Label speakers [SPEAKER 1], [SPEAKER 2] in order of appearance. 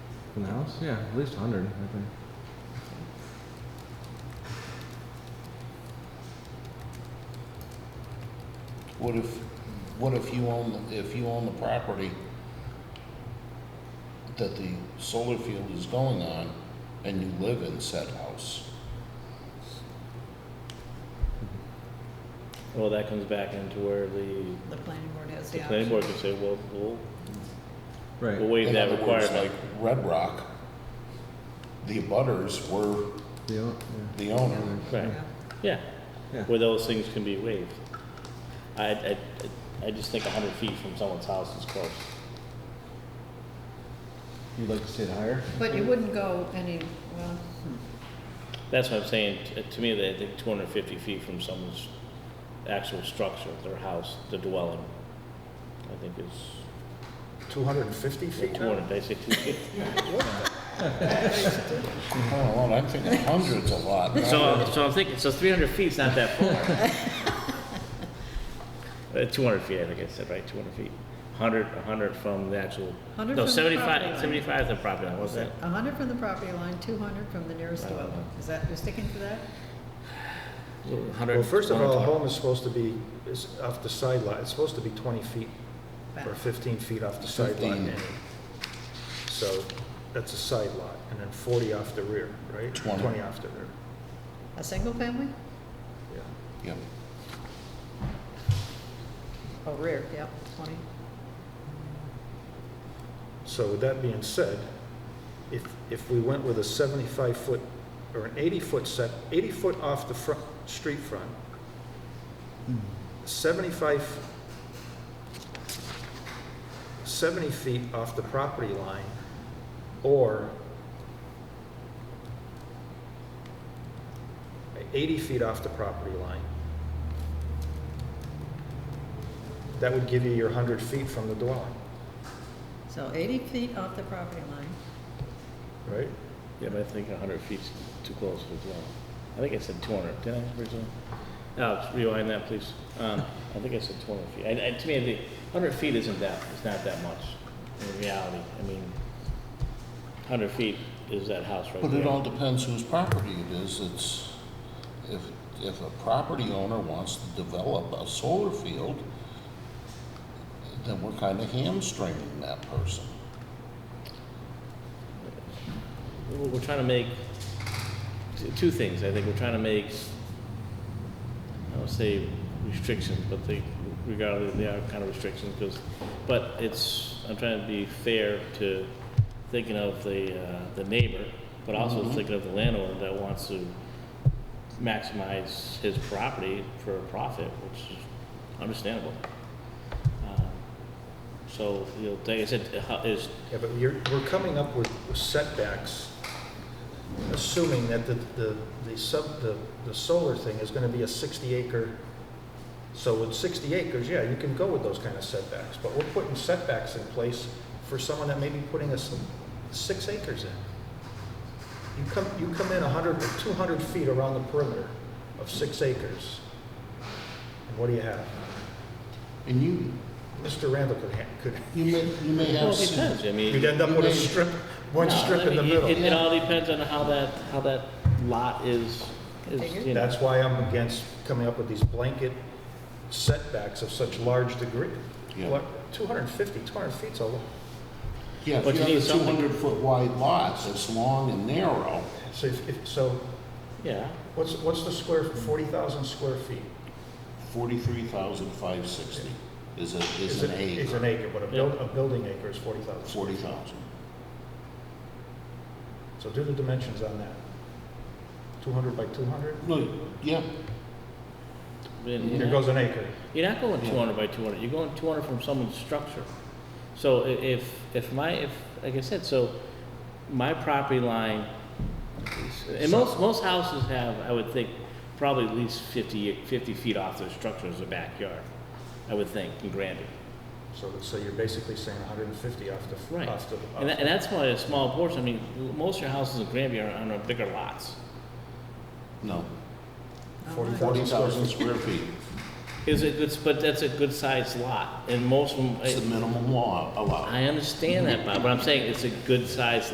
[SPEAKER 1] From the house? Yeah, at least 100, I think.
[SPEAKER 2] What if, what if you own, if you own the property that the solar field is going on and you live in said house?
[SPEAKER 3] Well, that comes back into where the,
[SPEAKER 4] The planning board has
[SPEAKER 3] the
[SPEAKER 4] the
[SPEAKER 3] planning
[SPEAKER 4] option.
[SPEAKER 3] board can say, well, we'll, we'll
[SPEAKER 1] Right.
[SPEAKER 3] waive
[SPEAKER 2] In
[SPEAKER 3] that
[SPEAKER 2] other words,
[SPEAKER 3] requirement.
[SPEAKER 2] Like Red Rock, the abutters were
[SPEAKER 1] The o-
[SPEAKER 2] the owner.
[SPEAKER 3] Right,
[SPEAKER 4] Yeah.
[SPEAKER 3] yeah,
[SPEAKER 1] Yeah.
[SPEAKER 3] where those things can be waived. I, I, I just think hundred feet from someone's house is close.
[SPEAKER 1] yeah. You'd like to see it higher?
[SPEAKER 4] But you wouldn't go any, well,
[SPEAKER 3] That's what I'm saying, T- to me, they think two hundred and fifty feet from someone's actual structure, their house, the dwelling, I think is,
[SPEAKER 5] 250 feet
[SPEAKER 3] two
[SPEAKER 5] now?
[SPEAKER 3] hundred, did I say two feet?
[SPEAKER 2] I don't know, I'm thinking hundreds a lot.
[SPEAKER 3] So, so I'm thinking, so three hundred feet's not that far. Uh, two hundred feet, I think I said, right, two hundred feet. Hundred, a hundred from the actual,
[SPEAKER 4] 100
[SPEAKER 3] no,
[SPEAKER 4] from the property line.
[SPEAKER 3] seventy-five, seventy-five is the property line, wasn't it?
[SPEAKER 4] 100 from the property line, 200 from the nearest
[SPEAKER 3] Right.
[SPEAKER 4] dwelling. Is that, you're sticking to that?
[SPEAKER 5] Well, first of all, a home is supposed to be, is off the sideline, it's supposed to be 20 feet
[SPEAKER 4] Back.
[SPEAKER 5] or 15 feet off the sideline.
[SPEAKER 2] 15.
[SPEAKER 5] So that's a side lot, and then 40 off the rear, right?
[SPEAKER 2] 20.
[SPEAKER 5] off the rear,
[SPEAKER 4] A single family?
[SPEAKER 5] yeah.
[SPEAKER 2] Yep.
[SPEAKER 4] Oh, rear, yep, 20.
[SPEAKER 5] So with that being said, if, if we went with a 75-foot or an 80-foot set, 80-foot off the front, street front, 75, 70 feet off the property line, or 80 feet off the property line, that would give you your 100 feet from the dwelling,
[SPEAKER 4] So 80 feet off the property line.
[SPEAKER 5] right?
[SPEAKER 3] Yeah, but I think hundred feet's too close as well. I think I said two hundred, did I originally? Alex, rewind that, please. Um, I think I said two hundred feet. I, I, to me, the hundred feet isn't that, it's not that much in reality. I mean, hundred feet is that house right there.
[SPEAKER 2] But it all depends whose property it is. It's, if, if a property owner wants to develop a solar field, then we're kind of hamstringing that person.
[SPEAKER 3] We're we're trying to make, t- two things, I think, we're trying to make, I don't say restrictions, but they, regardless, they are kind of restrictions, because, but it's, I'm trying to be fair to thinking of the, uh, the neighbor, but also thinking of the landowner that wants to maximize his property for a profit, which is understandable. Um, So, you know, like I said, how- is,
[SPEAKER 5] Yeah, but you're, we're coming up with setbacks, assuming that the, the, the sub, the, the solar thing is gonna be a sixty acre. So with sixty acres, yeah, you can go with those kind of setbacks, but we're putting setbacks in place for someone that may be putting us six acres in. You come, you come in a hundred or two hundred feet around the perimeter of six acres. And what do you have?
[SPEAKER 2] And you,
[SPEAKER 5] Mr. Randall could, ha- could,
[SPEAKER 2] you may, you may have.
[SPEAKER 3] well, it
[SPEAKER 2] some-
[SPEAKER 3] depends, I mean.
[SPEAKER 5] you'd end up with a
[SPEAKER 2] may-
[SPEAKER 5] strip, one
[SPEAKER 3] No,
[SPEAKER 5] strip
[SPEAKER 3] I
[SPEAKER 5] in the
[SPEAKER 3] mean, it-
[SPEAKER 5] middle.
[SPEAKER 3] It, it all depends on how that, how that lot is, is,
[SPEAKER 4] Configured?
[SPEAKER 3] you know.
[SPEAKER 5] That's why I'm against coming up with these blanket setbacks of such large degree.
[SPEAKER 2] Yeah.
[SPEAKER 5] What, 250, 200 feet's a, lo-
[SPEAKER 2] Yeah,
[SPEAKER 3] But
[SPEAKER 2] if
[SPEAKER 3] you
[SPEAKER 2] you
[SPEAKER 3] need
[SPEAKER 2] have a two
[SPEAKER 3] something.
[SPEAKER 2] hundred foot wide lot, that's long and narrow,
[SPEAKER 5] so if, if- so
[SPEAKER 3] Yeah,
[SPEAKER 5] what's, what's the square, 40,000 square feet?
[SPEAKER 2] forty-three thousand five sixty is a, is an
[SPEAKER 5] it- Is
[SPEAKER 2] acre,
[SPEAKER 5] an acre, but a buil, a building acre is 40,000.
[SPEAKER 2] forty thousand.
[SPEAKER 5] So do the dimensions on that. 200 by 200?
[SPEAKER 2] Well, yeah,
[SPEAKER 3] I mean,
[SPEAKER 5] Here
[SPEAKER 3] you're not-
[SPEAKER 5] goes an acre.
[SPEAKER 3] you're not going
[SPEAKER 2] Yeah.
[SPEAKER 3] two hundred by two hundred, you're going two hundred from someone's structure. So i- if, if my, if, like I said, so my property line, is- and most, most houses have, I would think, probably at least 50 50 feet off their structure as a backyard, I would think, in Granby.
[SPEAKER 5] So, so you're basically saying 150 off the,
[SPEAKER 3] Right.
[SPEAKER 5] off the.
[SPEAKER 3] And that, and that's why a small portion, I mean, most of your houses in Granby are on bigger lots.
[SPEAKER 2] no,
[SPEAKER 4] Oh,
[SPEAKER 5] Forty
[SPEAKER 4] my.
[SPEAKER 5] thousand.
[SPEAKER 2] forty thousand square feet.
[SPEAKER 3] Is it, it's, but that's a good sized lot, and most of
[SPEAKER 2] It's the
[SPEAKER 3] them,
[SPEAKER 2] minimum law allowed.
[SPEAKER 3] I understand that, Bob, but I'm saying it's a good sized